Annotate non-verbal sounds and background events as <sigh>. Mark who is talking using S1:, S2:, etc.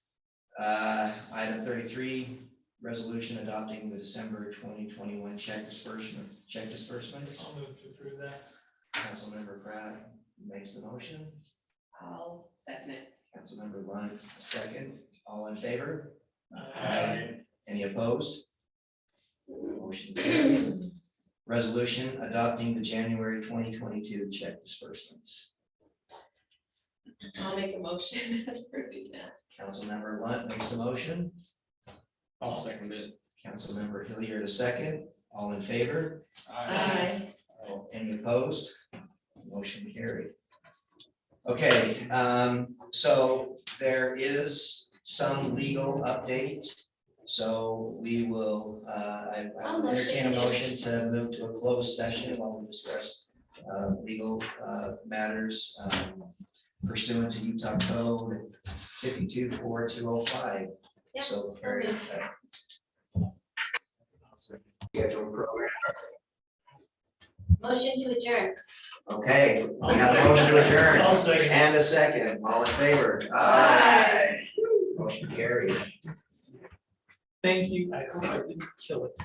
S1: Uh, Item thirty-three, resolution adopting the December twenty twenty-one check disbursement, check disbursements.
S2: I'll move to approve that.
S1: Councilmember Pratt makes the motion.
S3: I'll second it.
S1: Councilmember Lunt, second. All in favor?
S2: Aye.
S1: Any opposed? Motion carried. Resolution adopting the January twenty twenty-two check disbursements.
S3: I'll make a motion <laughs> approving that.
S1: Councilmember Lunt makes the motion.
S4: I'll second it.
S1: Councilmember Hilliard, a second. All in favor?
S3: Aye.
S1: Any opposed? Motion carried. Okay, um, so there is some legal update. So we will, uh, I I will entertain a motion to move to a closed session while we discuss uh, legal, uh, matters um, pursuant to Utah Code fifty-two four two oh five.
S3: Yeah,
S1: So.
S3: very good.
S1: uh, Schedule program.
S3: Motion to adjourn.
S1: Okay, we have a motion to adjourn
S2: I'll second.
S1: and a second. All in favor?
S3: Aye.
S1: Motion carried.
S2: Thank you. I hope I didn't kill it.